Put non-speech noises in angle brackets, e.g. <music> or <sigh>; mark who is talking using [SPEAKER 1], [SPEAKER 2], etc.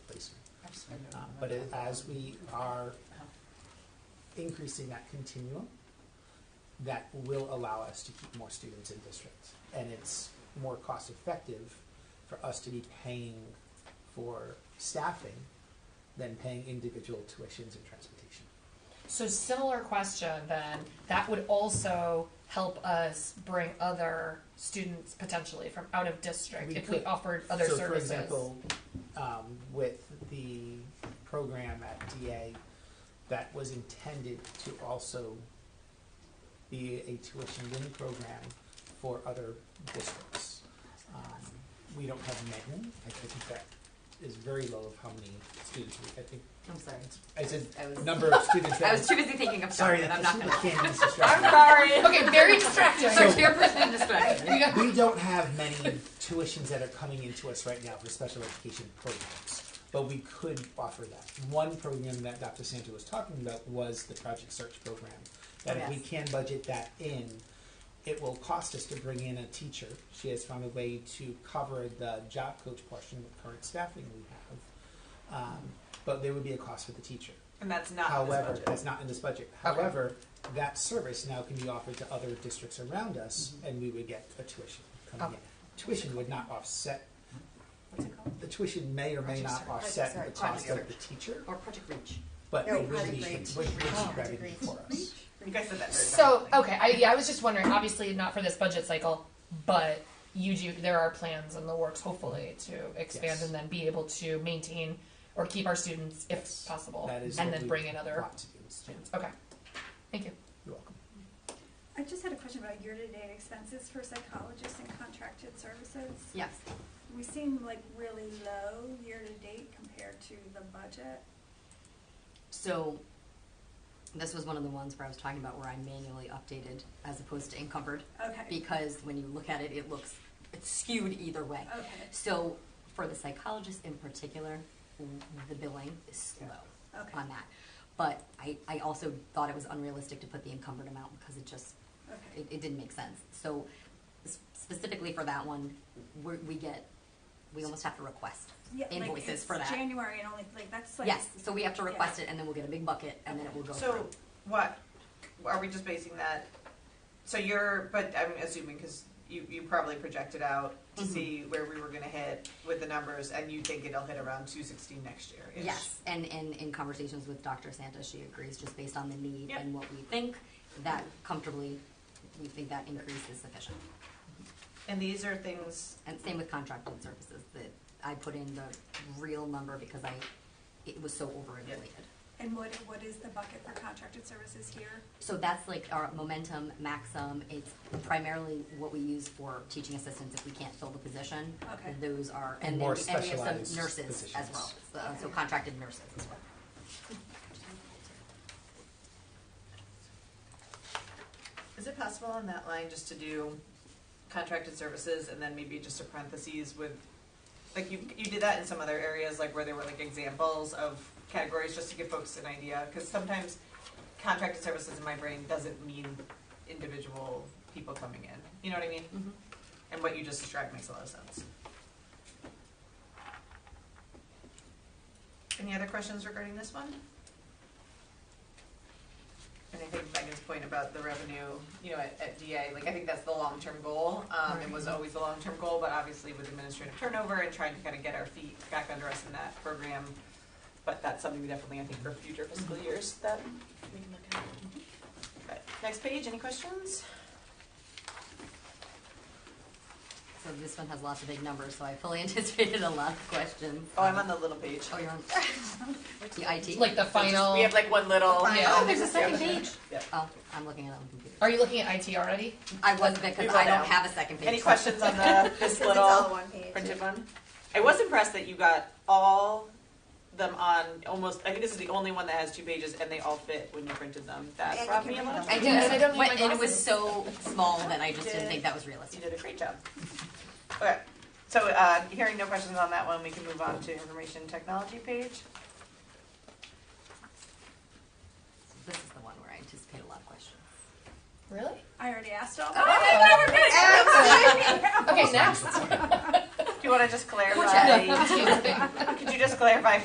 [SPEAKER 1] Um,
[SPEAKER 2] But it- as we are increasing that continuum, that will allow us to keep more students in districts. And it's more cost effective for us to be paying for staffing than paying individual tuitions and transportation.
[SPEAKER 1] So similar question then, that would also help us bring other students potentially from out of district
[SPEAKER 2] We
[SPEAKER 1] if we
[SPEAKER 2] could.
[SPEAKER 1] offered other
[SPEAKER 2] so
[SPEAKER 1] services.
[SPEAKER 2] for example, um, with the program at DA that was intended to also be a tuition in program for other districts. Um, we don't have many. I think that is very low of how many students we, I think,
[SPEAKER 3] I'm sorry.
[SPEAKER 2] I said
[SPEAKER 3] I was,
[SPEAKER 2] number of students that.
[SPEAKER 3] <laughs> I was too busy thinking
[SPEAKER 2] <laughs>
[SPEAKER 3] of
[SPEAKER 2] Sorry,
[SPEAKER 3] sorry,
[SPEAKER 2] that
[SPEAKER 3] I'm not gonna.
[SPEAKER 2] can't be
[SPEAKER 3] <laughs> I'm
[SPEAKER 2] distracted.
[SPEAKER 1] <laughs>
[SPEAKER 3] sorry.
[SPEAKER 2] <laughs>
[SPEAKER 1] Okay, very distracting.
[SPEAKER 2] So-
[SPEAKER 3] So your percent distraction.
[SPEAKER 1] We got-
[SPEAKER 2] We don't have many tuitions that are coming into us right now for special education programs, but we could offer that. One program that Dr. Santa was talking about was the Project Search program. That if we
[SPEAKER 3] Yes.
[SPEAKER 2] can budget that in, it will cost us to bring in a teacher. She has found a way to cover the job coach portion with current staffing we have. Um, but there would be a cost for the teacher.
[SPEAKER 4] And that's not
[SPEAKER 2] However,
[SPEAKER 4] this budget.
[SPEAKER 2] that's not in this budget. However, that service now can be offered to other districts around us, and we would get a tuition coming in.
[SPEAKER 1] Okay.
[SPEAKER 2] Tuition would not offset,
[SPEAKER 3] What's it called?
[SPEAKER 2] the tuition may or may
[SPEAKER 1] Project
[SPEAKER 2] not
[SPEAKER 1] search.
[SPEAKER 2] offset the
[SPEAKER 3] Project
[SPEAKER 2] cost
[SPEAKER 3] search.
[SPEAKER 2] of the teacher,
[SPEAKER 3] Or Project Reach.
[SPEAKER 2] but
[SPEAKER 5] No,
[SPEAKER 2] it would
[SPEAKER 5] Project
[SPEAKER 2] be,
[SPEAKER 5] Reach.
[SPEAKER 2] would be
[SPEAKER 5] Oh.
[SPEAKER 2] revenue for us.
[SPEAKER 4] you guys said that. Very
[SPEAKER 1] So,
[SPEAKER 3] um,
[SPEAKER 4] differently.
[SPEAKER 1] okay, I, yeah, I was just wondering, obviously not for this budget cycle, but you do, there are plans in the works hopefully to expand
[SPEAKER 2] Yes.
[SPEAKER 1] and then be able to maintain or keep our students if
[SPEAKER 2] Yes.
[SPEAKER 1] possible.
[SPEAKER 2] That is
[SPEAKER 1] And
[SPEAKER 2] what
[SPEAKER 1] then
[SPEAKER 2] we
[SPEAKER 1] bring in other
[SPEAKER 2] want to do.
[SPEAKER 1] students. Okay, thank you.
[SPEAKER 2] You're welcome.
[SPEAKER 6] I just had a question about year-to-date expenses for psychologists and contracted services.
[SPEAKER 3] Yes.
[SPEAKER 6] We seem like really low year-to-date compared to the budget.
[SPEAKER 3] So this was one of the ones where I was talking about where I manually updated as opposed to encumbered
[SPEAKER 6] Okay,
[SPEAKER 3] because when you look at it, it looks it's skewed either way.
[SPEAKER 6] okay,
[SPEAKER 3] So for the psychologist in particular, the billing is slow.
[SPEAKER 6] okay,
[SPEAKER 3] on that. But I, I also thought it was unrealistic to put the encumbered amount because it just,
[SPEAKER 6] okay.
[SPEAKER 3] it, it didn't make sense. So s- specifically for that one, we're, we get, we almost have to request.
[SPEAKER 6] Yeah, like,
[SPEAKER 3] Invoices
[SPEAKER 6] it's
[SPEAKER 3] for that.
[SPEAKER 6] January and only, like, that's like.
[SPEAKER 3] Yes, so we have to request it and then we'll get a big bucket and then it will go
[SPEAKER 4] So
[SPEAKER 3] through.
[SPEAKER 4] what are we just basing that? So you're, but I'm assuming because you, you probably projected out to
[SPEAKER 3] Mhm.
[SPEAKER 4] see where we were going to hit with the numbers, and you think it'll hit around 216 next year.
[SPEAKER 3] Yes, and, and in conversations with Dr. Santa, she agrees just based on the need
[SPEAKER 4] Yep.
[SPEAKER 3] and what we think, that comfortably, we think that increase is sufficient.
[SPEAKER 4] And these are things.
[SPEAKER 3] And same with contracted services, that I put in the real number because I, it was so overinflated.
[SPEAKER 6] And what, what is the bucket for contracted services here?
[SPEAKER 3] So that's like our momentum, maxim. It's primarily what we use for teaching assistants if we can't fill the position.
[SPEAKER 6] Okay.
[SPEAKER 3] Those are,
[SPEAKER 2] And
[SPEAKER 3] and then
[SPEAKER 2] more
[SPEAKER 3] we, and we have some
[SPEAKER 2] specialized
[SPEAKER 3] nurses as
[SPEAKER 2] positions.
[SPEAKER 3] well, so- so contracted nurses as well.
[SPEAKER 4] Is it possible on that line just to do contracted services and then maybe just a parentheses with, like you you did that in some other areas, like where there were like examples of categories, just to give folks an idea, because sometimes contracted services in my brain doesn't mean individual people coming in. You know what I mean?
[SPEAKER 3] Mhm.
[SPEAKER 4] And what you just described makes a lot of sense. Any other questions regarding this one? And I think Megan's point about the revenue, you know, at, at DA, like, I think that's the long-term goal, um, it was always the long-term goal, but obviously with administrative turnover and trying to kind of get our feet back under us in that program. But that's something we definitely, I think, for future fiscal years that we can look at.
[SPEAKER 3] Mm-hmm.
[SPEAKER 4] But, next page, any questions?
[SPEAKER 3] So this one has lots of big numbers, so I fully <laughs> anticipated a lot of questions.
[SPEAKER 4] Oh, I'm on the little page.
[SPEAKER 3] Oh,
[SPEAKER 1] <laughs>
[SPEAKER 3] you're on the IT?
[SPEAKER 1] Like the final,
[SPEAKER 4] We have like one little.
[SPEAKER 1] Yeah.
[SPEAKER 3] Oh, there's a second page.
[SPEAKER 4] Yeah.
[SPEAKER 3] Oh, I'm looking at it on the computer.
[SPEAKER 1] are you looking at IT already?
[SPEAKER 3] I wasn't because
[SPEAKER 4] will
[SPEAKER 3] I
[SPEAKER 4] now.
[SPEAKER 3] don't have a second page.
[SPEAKER 4] Any questions on the, this
[SPEAKER 5] It's all
[SPEAKER 4] little
[SPEAKER 5] one page.
[SPEAKER 4] printed one? I was impressed that you got all them on almost, I think this is the only one that has two pages and they all fit when you printed them. That
[SPEAKER 5] And
[SPEAKER 4] brought
[SPEAKER 5] you
[SPEAKER 4] me a
[SPEAKER 5] can
[SPEAKER 4] lot.
[SPEAKER 5] print
[SPEAKER 4] of
[SPEAKER 3] I
[SPEAKER 4] joy.
[SPEAKER 3] did,
[SPEAKER 1] Yes, I don't need my
[SPEAKER 3] and it was
[SPEAKER 1] glasses.
[SPEAKER 3] so small that I just didn't think that was
[SPEAKER 4] You
[SPEAKER 3] realistic.
[SPEAKER 4] did a great job. Okay, so, uh, hearing no questions on that one, we can move on to information technology page.
[SPEAKER 3] This is the one where I anticipate a lot of questions.
[SPEAKER 1] Really?
[SPEAKER 6] I already asked all
[SPEAKER 1] Oh.
[SPEAKER 6] that. <laughs>
[SPEAKER 1] Okay, next.
[SPEAKER 4] Do you wanna just clarify?
[SPEAKER 3] Gotcha.
[SPEAKER 4] Could you just clarify